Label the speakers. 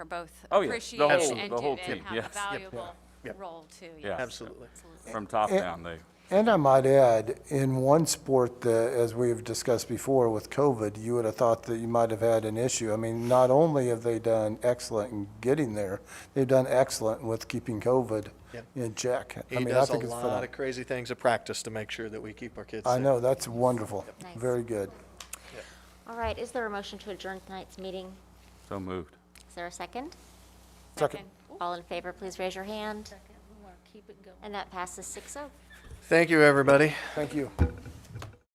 Speaker 1: are both
Speaker 2: Oh, yeah, the
Speaker 1: appreciated
Speaker 2: whole-
Speaker 1: and
Speaker 2: the whole
Speaker 1: do and
Speaker 2: team,
Speaker 1: have a
Speaker 2: yes. Yep,
Speaker 1: valuable
Speaker 3: yep.
Speaker 1: role too.
Speaker 2: Yeah.
Speaker 1: yes.
Speaker 3: Absolutely.
Speaker 2: From top
Speaker 4: Eh.
Speaker 2: down, they,
Speaker 4: And I might add, in one sport that, as we have discussed before with COVID, you would have thought that you might have had an issue. I mean, not only have they done excellent in getting there, they've done excellent with keeping COVID
Speaker 3: Yep.
Speaker 4: in check. I
Speaker 3: He
Speaker 4: mean, I
Speaker 3: does a
Speaker 4: think it's
Speaker 3: lot
Speaker 4: phenomenal.
Speaker 3: of crazy things at practice to make sure that we keep our kids safe.
Speaker 4: I know, that's wonderful.
Speaker 5: Nice.
Speaker 4: Very good.
Speaker 5: All right, is there a motion to adjourn tonight's meeting?
Speaker 2: so moved.
Speaker 5: Is there a second?
Speaker 4: Second.
Speaker 5: All in favor, please raise your hand.
Speaker 6: Second, we want to keep it going.
Speaker 5: And that passes six oh.
Speaker 3: Thank you, everybody.
Speaker 4: Thank you.